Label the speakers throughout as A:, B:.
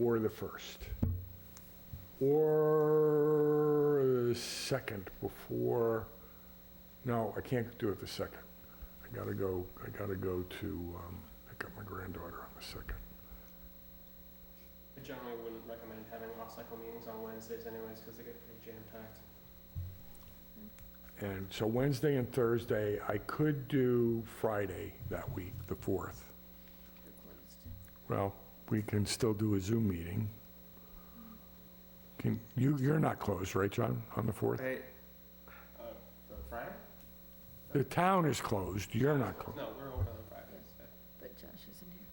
A: or the 1st. Or the 2nd before, no, I can't do it the 2nd. I gotta go, I gotta go to um, pick up my granddaughter on the 2nd.
B: I generally wouldn't recommend having off-cycle meetings on Wednesdays anyways, because they get pretty jam-packed.
A: And so Wednesday and Thursday, I could do Friday that week, the 4th. Well, we can still do a Zoom meeting. Can, you, you're not closed, right, John, on the 4th?
C: I,
B: Uh, the Friday?
A: The town is closed, you're not closed.
B: No, we're open on Fridays. yeah.
D: But Josh isn't here.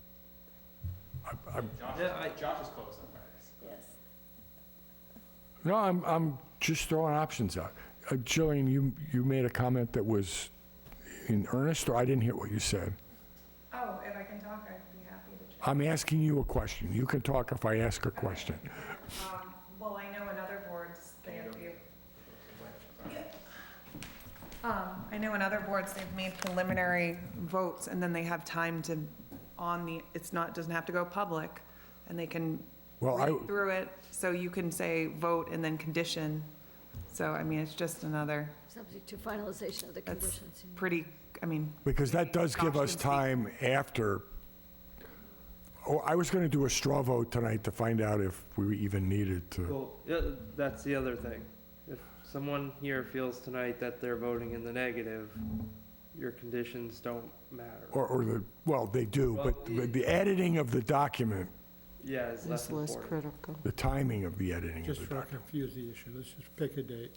A: I- I-
B: Josh,
C: Yeah, I-
B: is- Josh is closed on Fridays.
D: Yes.
A: No, I'm, I'm just throwing options out. Uh, Jillian, you, you made a comment that was in earnest, or I didn't hear what you said.
E: Oh, if I can talk, I'd be happy to chat.
A: I'm asking you a question. You can talk if I ask a question.
E: Um, Well, I know in other boards, they have to. Um, I know in other boards, they've made preliminary votes, and then they have time to, on the, it's not, doesn't have to go public, and they can
A: Well, I,
E: read through it, so you can say vote and then condition. So, I mean, it's just another
D: Subject to finalization of the
E: That's
D: conditions. yeah.
E: pretty, I mean,
A: Because that does give us time after, oh, I was going to do a straw vote tonight to find out if we even needed to.
C: well, yeah, that's the other thing. If someone here feels tonight that they're voting in the negative, your conditions don't matter.
A: Or, or the, well, they do, but the the editing of the document,
C: Yeah, it's less
F: It's less
C: important.
F: critical.
A: the timing of the editing of
G: Just
A: the
G: for
A: document.
G: confuse the issue, let's just pick a date.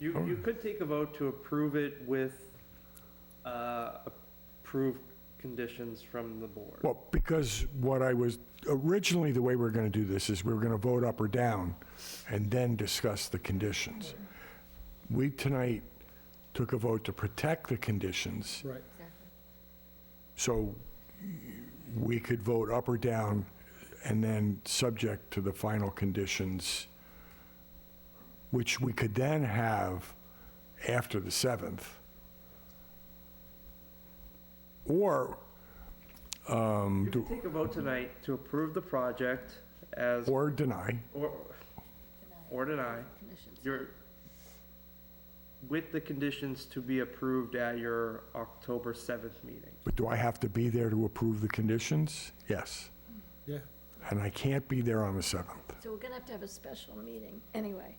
C: You, you could take a vote to approve it with, uh, approved conditions from the board.
A: Well, because what I was, originally, the way we we're going to do this is we were going to vote up or down and then discuss the conditions. We tonight took a vote to protect the conditions.
G: Right.
A: So we could vote up or down, and then subject to the final conditions, which we could then have after the 7th. Or, um,
C: You
A: do-
C: could take a vote tonight to approve the project as,
A: or deny.
C: or, or deny.
D: Conditions.
C: Your, with the conditions to be approved at your October 7th meeting.
A: But do I have to be there to approve the conditions? Yes.
G: Yeah,
A: And I can't be there on the 7th.
D: So we're gonna have to have a special meeting anyway.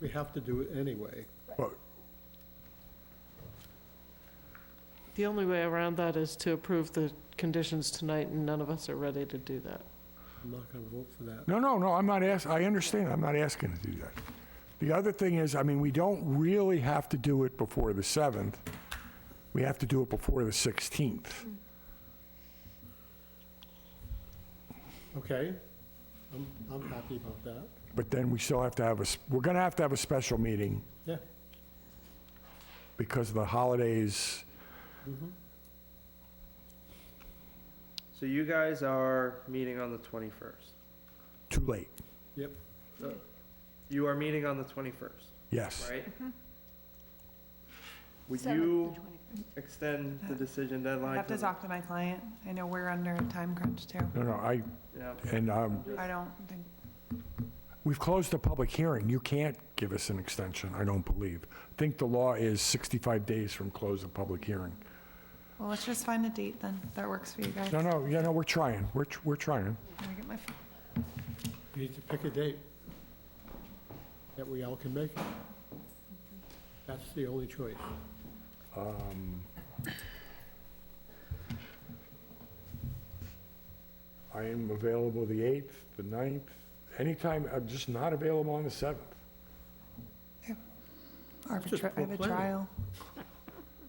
G: we have to do it anyway.
A: But
F: The only way around that is to approve the conditions tonight, and none of us are ready to do that.
G: I'm not going to vote for that.
A: No, no, no, I'm not ask, I understand, I'm not asking to do that. The other thing is, I mean, we don't really have to do it before the 7th. We have to do it before the 16th.
G: Okay, I'm, I'm happy about that.
A: But then we still have to have a, s- we're going to have to have a special meeting
G: Yeah,
A: because of the holidays.
C: So you guys are meeting on the 21st.
A: Too late.
G: yep,
C: You are meeting on the 21st,
A: Yes.
C: right? Would
D: Seventh, the
C: you
D: 21st.
C: extend the decision
E: I
C: deadline?
E: have to
C: the-
E: talk to my client. I know we're under a time crunch, too.
A: No, no, I,
C: Yeah.
A: and um,
E: I don't think,
A: we've closed the public hearing. You can't give us an extension, I don't believe. I think the law is 65 days from close of public hearing.
E: well, let's just find a date then, if that works for you guys.
A: No, no, yeah, no, we're trying. We're, tr- we're trying.
E: Let me get my phone.
G: we need to pick a date that we all can make it. That's the only choice.
A: I am available the 8th, the 9th, anytime, I'm just not available on the 7th.
G: Just
E: Arbitra- I have a
G: proclaim it.
E: trial.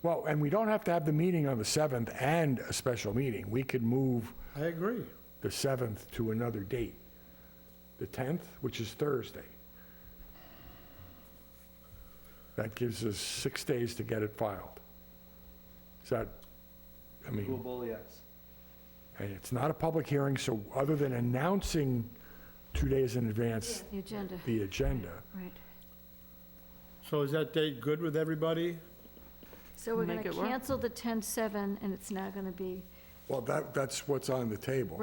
A: Well, and we don't have to have the meeting on the 7th and a special meeting. We could move
G: I agree.
A: the 7th to another date, the 10th, which is Thursday. That gives us six days to get it filed. Is that, I mean,
C: Doable, yes.
A: and it's not a public hearing, so other than announcing two days in advance
D: The agenda,
A: the agenda,
D: right.
G: So is that date good with everybody?
D: So we're gonna
F: Make it work.
D: cancel the 10-7, and it's now gonna be
A: well, that, that's what's on the table.